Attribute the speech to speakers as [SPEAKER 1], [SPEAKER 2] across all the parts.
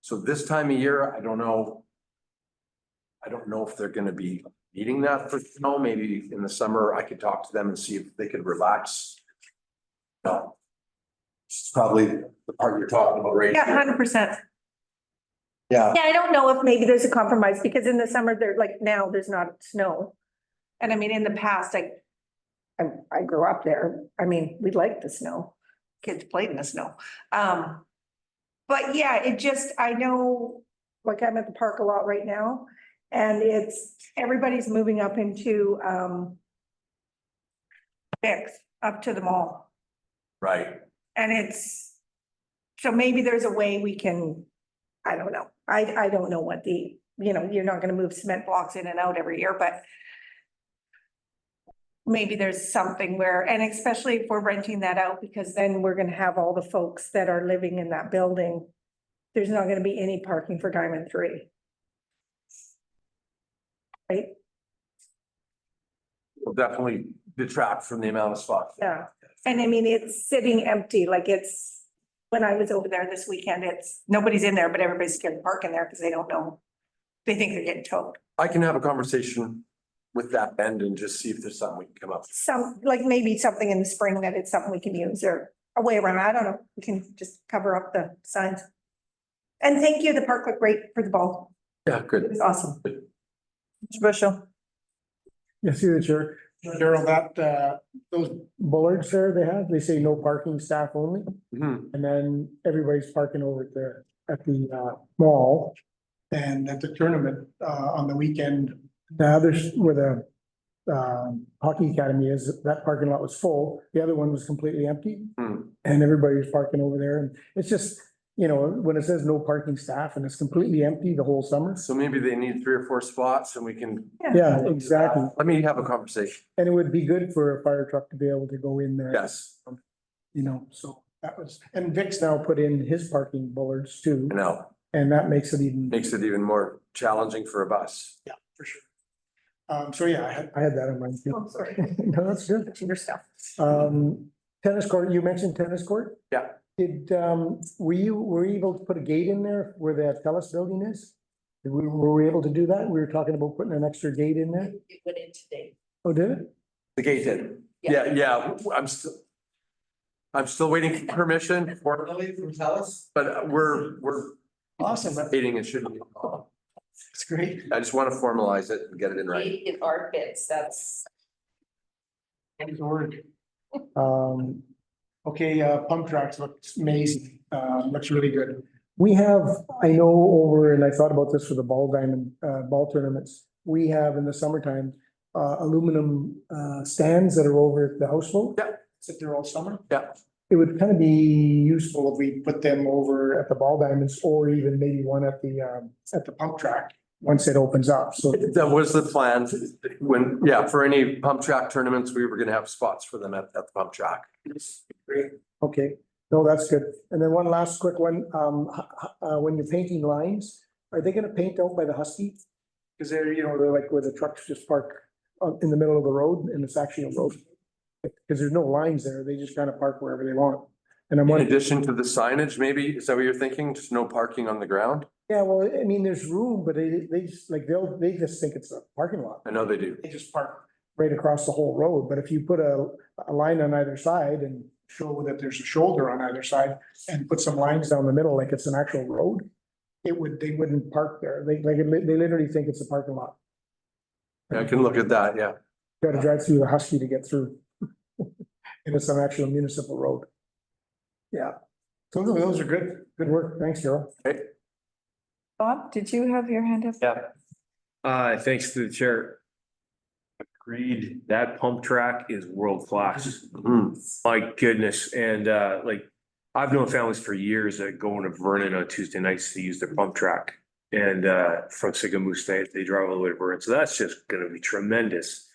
[SPEAKER 1] So this time of year, I don't know. I don't know if they're gonna be needing that for snow, maybe in the summer, I could talk to them and see if they could relax. No. It's probably the part you're talking about right
[SPEAKER 2] Yeah,
[SPEAKER 1] here.
[SPEAKER 2] hundred percent.
[SPEAKER 1] Yeah,
[SPEAKER 2] Yeah, I don't know if maybe there's a compromise because in the summer, there, like now, there's not snow. And I mean, in the past, I, I, I grew up there. I mean, we liked the snow. Kids played in the snow. Um, but yeah, it just, I know, like I'm at the park a lot right now and it's, everybody's moving up into, um, Bix, up to the mall.
[SPEAKER 1] right.
[SPEAKER 2] And it's, so maybe there's a way we can, I don't know, I, I don't know what the, you know, you're not gonna move cement blocks in and out every year, but maybe there's something where, and especially if we're renting that out, because then we're gonna have all the folks that are living in that building. There's not gonna be any parking for Diamond Three. Right,
[SPEAKER 1] Will Definitely detract from the amount of spots.
[SPEAKER 2] yeah, and I mean, it's sitting empty, like it's, when I was over there this weekend, it's, nobody's in there, but everybody's scared to park in there because they don't know. They think they're getting towed.
[SPEAKER 1] I can have a conversation with that end and just see if there's something we can come up with.
[SPEAKER 2] Some, like maybe something in the spring that it's something we can use or a way around, I don't know, we can just cover up the signs. And thank you, the park looked great for the ball,
[SPEAKER 1] Yeah,
[SPEAKER 2] it
[SPEAKER 1] good.
[SPEAKER 2] was awesome.
[SPEAKER 3] Special.
[SPEAKER 4] Yes, through the chair. Daryl, that, uh, those bollards there they have, they say no parking staff only.
[SPEAKER 1] Mhm.
[SPEAKER 4] And then everybody's parking over at the, at the, uh, mall. And at the tournament, uh, on the weekend. The others where the, um, hockey academy is, that parking lot was full. The other one was completely empty.
[SPEAKER 1] Hmm.
[SPEAKER 4] And everybody was parking over there. And it's just, you know, when it says no parking staff and it's completely empty the whole summer.
[SPEAKER 1] So maybe they need three or four spots and we can.
[SPEAKER 4] Yeah, exactly.
[SPEAKER 1] Let me have a conversation.
[SPEAKER 4] And it would be good for a fire truck to be able to go in there.
[SPEAKER 1] Yes,
[SPEAKER 4] you know, so that was, and Vic's now put in his parking bullards too,
[SPEAKER 1] I know.
[SPEAKER 4] and that makes it even.
[SPEAKER 1] Makes it even more challenging for a bus.
[SPEAKER 4] Yeah, for sure. Um, so yeah, I had. I had that in mind. too.
[SPEAKER 2] Oh, sorry.
[SPEAKER 4] No, that's good.
[SPEAKER 2] To your stuff.
[SPEAKER 4] Um, tennis court, you mentioned tennis court?
[SPEAKER 1] Yeah.
[SPEAKER 4] Did, um, were you, were you able to put a gate in there where the Telus building is? Did we- Were we able to do that? We were talking about putting an extra gate in there?
[SPEAKER 5] It went in today.
[SPEAKER 4] Oh, did it?
[SPEAKER 1] The gate did. Yeah, yeah, I'm still. I'm still waiting for permission, for-
[SPEAKER 5] Really from Telus?
[SPEAKER 1] but we're, we're
[SPEAKER 4] Awesome, that's
[SPEAKER 1] hating it shouldn't be. a problem.
[SPEAKER 4] that's great.
[SPEAKER 1] I just want to formalize it and get it in right.
[SPEAKER 5] Eight in our bids, that's.
[SPEAKER 4] Thanks, word. Um, okay, uh, pump tracks looks amazing, uh, looks really good. We have, I know over, and I thought about this for the ball diamond, uh, ball tournaments. We have in the summertime, uh, aluminum, uh, stands that are over at the houseboat.
[SPEAKER 1] Yeah.
[SPEAKER 4] Sit there all summer.
[SPEAKER 1] Yeah.
[SPEAKER 4] It would kind of be useful if we put them over at the ball diamonds or even maybe one at the, um, at the pump track, once it opens up, so.
[SPEAKER 1] That was the plan when, yeah, for any pump track tournaments, we were gonna have spots for them at, at the pump track.
[SPEAKER 4] Okay, no, that's good. And then one last quick one, um, h- h- uh, when you're painting lines, are they gonna paint out by the Husky? Cause they're, you know, they're like where the trucks just park uh, in the middle of the road and it's actually a road. Cause there's no lines there, they just kind of park wherever they want. And I'm
[SPEAKER 1] In
[SPEAKER 4] wondering,
[SPEAKER 1] addition to the signage, maybe, is that what you're thinking? Just no parking on the ground?
[SPEAKER 4] yeah, well, I mean, there's room, but they, they just, like, they'll, they just think it's a parking lot.
[SPEAKER 1] I know they do.
[SPEAKER 4] They just park right across the whole road, but if you put a, a line on either side and show that there's a shoulder on either side and put some lines down the middle like it's an actual road, it would, they wouldn't park there. They, like, they literally think it's a parking lot.
[SPEAKER 1] I can look at that, yeah.
[SPEAKER 4] Gotta drive through the Husky to get through. And it's an actual municipal road. Yeah. So those are good, good work. Thanks, Daryl.
[SPEAKER 2] Bob, did you have your hand up?
[SPEAKER 6] Uh, thanks to the chair. Agreed, that pump track is world class.
[SPEAKER 1] Hmm.
[SPEAKER 6] My goodness, and uh, like, I've known families for years that go into Vernon on Tuesday nights to use their pump track. And uh, from Sigamoose, they, they drive all the way to Vernon, so that's just gonna be tremendous.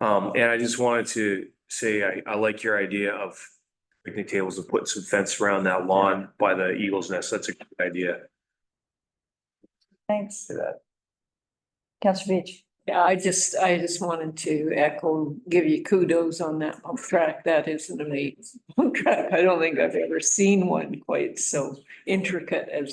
[SPEAKER 6] Um, and I just wanted to say, I, I like your idea of picnic tables and putting some fence around that lawn by the Eagles Nest, that's a good idea.
[SPEAKER 7] Thanks.
[SPEAKER 1] Say that.
[SPEAKER 7] Council Beach.
[SPEAKER 5] Yeah, I just, I just wanted to echo, give you kudos on that pump track. That is an amazing pump track. I don't think I've ever seen one quite so intricate as